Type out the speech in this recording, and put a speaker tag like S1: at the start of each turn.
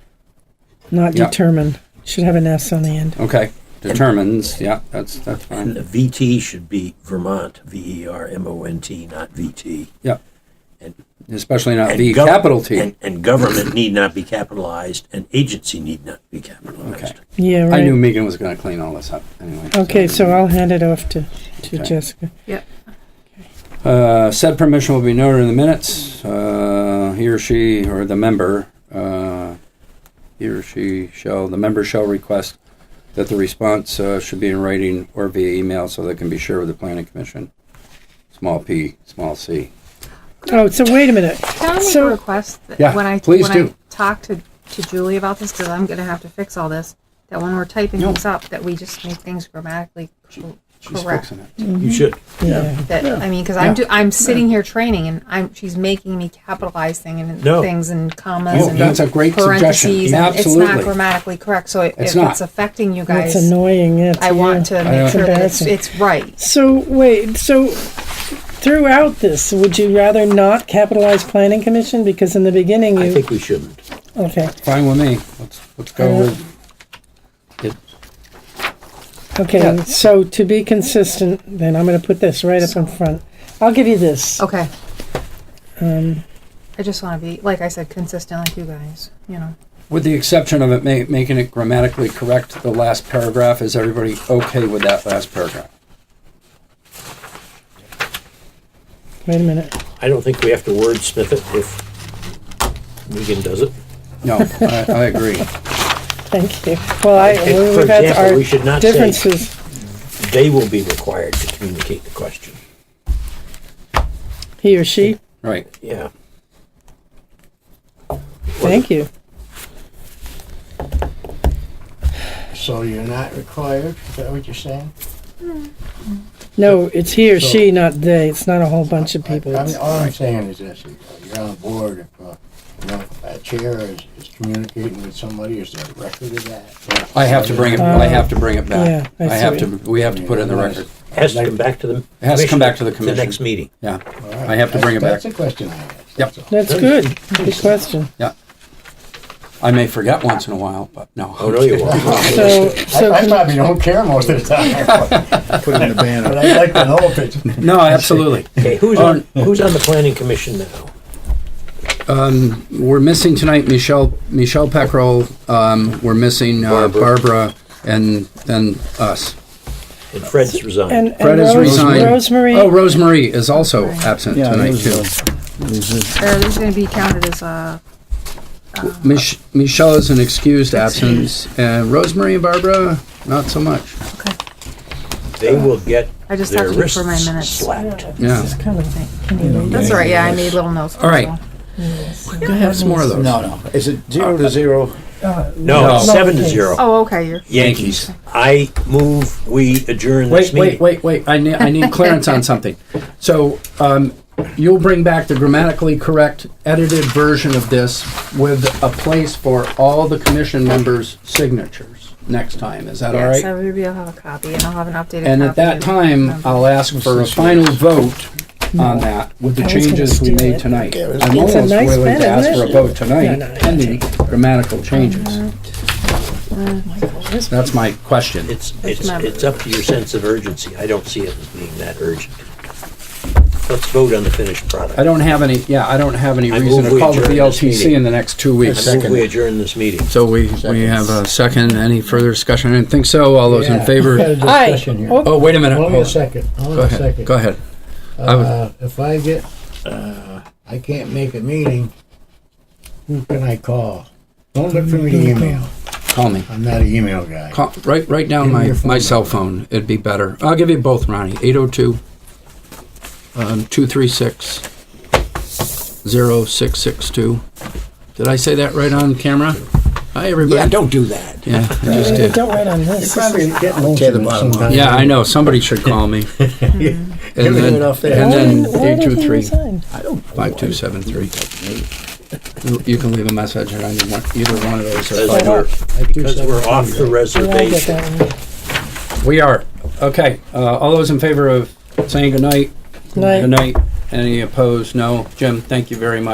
S1: not
S2: Yeah.
S1: determine. Should have an S on the end.
S2: Okay, determines, yeah, that's, that's fine.
S3: And the VT should be Vermont, V E R M O N T, not VT.
S2: Yeah.
S3: And-
S2: Especially not
S3: And
S2: the
S3: gov-
S2: E capital T.
S3: And, and government need not be capitalized, and agency need not be capitalized.
S2: Okay.
S1: Yeah, right.
S2: I knew Megan was gonna clean all this up anyway.
S1: Okay, so I'll hand it off to, to
S2: Okay.
S1: Jessica.
S2: Uh, said permission will be noted in the minutes. Uh, he or she, or the member, uh, he or she shall, the member shall request that the response uh, should be in writing or via email so that it can be shared with the planning commission. Small p, small c.
S1: Oh, so wait a minute.
S4: Can I make
S1: So-
S4: a request that
S2: Yeah,
S4: when I
S2: please
S4: when
S2: do.
S4: I talk to, to Julie about this because I'm going to have to fix all this. That when we're typing
S2: No.
S4: things up, that we just make things grammatically co-
S2: She's
S4: correct.
S2: fixing it.
S3: You should.
S1: Yeah.
S4: That I mean, because
S2: Yeah.
S4: I'm do, I'm sitting here training and I'm she's making me capitalize thing and
S3: No.
S4: things and commas
S2: Oh,
S4: and
S2: that's a great
S4: parentheses
S2: suggestion.
S4: and it's not
S2: Absolutely.
S4: grammatically correct. So it,
S2: It's
S4: if
S2: not.
S4: it's affecting you
S1: That's
S4: guys,
S1: annoying. It's,
S4: I want to
S2: know.
S4: make sure that it's,
S1: Embarrassing.
S4: it's right.
S1: So wait, so throughout this, would you rather not capitalize planning commission because in the beginning you
S3: I think we shouldn't.
S1: okay
S2: Fine with me. Let's, let's go with it.
S1: okay
S2: Yeah.
S1: so to be consistent, then I'm going to put this right up in front. I'll give you this.
S4: Okay. Um,
S2: Um,
S4: I just want to be like I said, consistent like you guys. You know.
S2: With the exception of it ma- making it grammatically correct, the last paragraph, is everybody okay with that last paragraph?
S1: Wait a minute.
S5: I don't think we have to wordsmith it if Megan does it.
S2: No, I, I agree.
S1: Thank you. Well, I
S5: think,
S1: we-
S5: for
S1: we've had
S5: example,
S1: our
S5: we should not say-
S1: differences.
S5: They will be required to communicate the question.
S1: He or she.
S2: Right.
S5: Yeah.
S1: Thank you.
S6: So you're not required, is that what you're saying?
S1: No, it's he or she, not they. It's not a whole bunch of
S6: I-
S1: people.
S6: I mean,
S1: It's-
S6: all I'm saying is this, you know, you're on the board, if, uh, you know, a chair is, is communicating with somebody, is there a record of that?
S2: I have to bring it, I have to bring it
S1: Uh, Yeah,
S2: back.
S1: I
S2: I have
S1: see.
S2: to, we have to put it in the record.
S5: It has to come back to the. It
S2: has to come back to the
S5: The
S2: commission.
S5: next meeting.
S2: Yeah,
S6: All right.
S2: I have to bring it back.
S6: That's that's a question I asked.
S2: Yep.
S6: that's all.
S1: That's good. Good question.
S2: Yeah. I may forget once in a while, but no.
S5: Oh, no, you won't.
S1: So, so
S6: I I probably don't care most of the time, but-
S7: put it in the
S6: but
S7: banner.
S6: I'd like to know if it's,
S2: No, absolutely.
S5: Okay, who's on,
S2: Oh.
S5: who's on the planning commission now?
S2: We're missing tonight Michelle, Michelle Peckrell. Um, we're missing uh, Barbara and then us.
S5: And Fred's resigned.
S1: and, and
S2: Fred has
S1: Rose,
S2: resigned.
S1: Rosemary.
S2: Oh, Rosemary is also absent
S7: Yeah,
S2: tonight
S7: those
S2: too.
S7: are- those are-
S4: Or this is going to be counted as uh,
S2: Mich- Michelle is an excused absence and Rosemary and Barbara, not so much.
S4: okay.
S5: They will get
S4: I just
S5: their
S4: have to look
S5: wrists
S4: for my minutes.
S5: slapped.
S2: Yeah.
S1: It's kind of-
S4: That's all right. Yeah, I made little notes.
S2: All right.
S7: That's
S2: more of those.
S7: No, no. Is it zero to zero?
S5: No,
S2: No.
S5: seven to zero.
S4: Oh, okay. You're
S5: Yankees. I move we adjourn
S2: Wait,
S5: this
S2: wait,
S5: meeting.
S2: wait, wait. I need, I need clearance on something. So, um, you'll bring back the grammatically correct edited version of this with a place for all the commission members' signatures next time. Is that all
S4: yes,
S2: right?
S4: I will be. I'll have a copy, and I'll have an updated.
S2: And at
S4: copy
S2: that
S4: of-
S2: time, I'll ask for a final vote on that with the
S1: I was gonna
S2: changes we
S1: steal
S2: made
S1: it.
S2: tonight.
S7: was-
S2: I'm
S1: It's a
S2: almost
S1: nice
S2: willing
S1: pen,
S2: to ask
S1: isn't
S2: for a
S1: it?
S2: vote
S1: No, no,
S2: tonight
S1: I
S2: pending grammatical changes. That's my question.
S5: It's, it's,
S4: not-
S5: it's up to your sense of urgency. I don't see it as being that urgent. Let's vote on the finished product.
S2: I don't have any, yeah, I don't have any
S5: I
S2: reason
S5: move
S2: to
S5: we
S2: call the
S5: adjourn this
S2: VLTC
S5: meeting.
S2: in the next two weeks.
S5: I move we adjourn this meeting.
S2: So we, we have a second, any further discussion? I didn't think so, all those in
S6: Yeah. We've
S2: favor?
S6: had a discussion here.
S1: Oh,
S2: Oh, wait a minute.
S6: Hold on
S2: Hold
S6: a
S2: on.
S6: second, hold
S2: Go
S6: on a
S2: ahead,
S6: second.
S2: go ahead. I would-
S6: Uh, if I get, uh, I can't make a meeting, who can I call? Don't look for me to email.
S2: Call me.
S6: I'm not an email guy.
S2: Call, write, write down
S6: Give me
S2: my,
S6: your phone
S2: my
S6: number.
S2: cell phone, it'd be better. I'll give you both, Ronnie, eight oh two, um, two three six, zero six six two. Did I say that right on camera? Hi,
S5: Yeah,
S2: everybody.
S5: don't do that.
S2: Yeah, I just did.
S1: Don't write on
S6: You're
S1: this.
S6: probably getting
S7: I'll
S6: most
S7: tear
S6: of
S7: the
S6: it
S7: bottom
S6: sometime.
S2: Yeah, I know, somebody should call me. And then,
S7: it
S2: and
S7: off there.
S1: Why
S2: then
S1: didn't- why
S2: eight two
S1: did he
S2: three.
S1: resign?
S7: I don't.
S2: Five two seven three. You can leave a message on either one- either one of those. or
S5: Because
S2: five-
S5: we're, because we're off the
S1: Yeah, I get
S5: reservation.
S1: that one.
S2: We are. Okay, uh, all those in favor of saying goodnight?
S1: Night.
S2: Goodnight. Any opposed? No. Jim, thank you very much.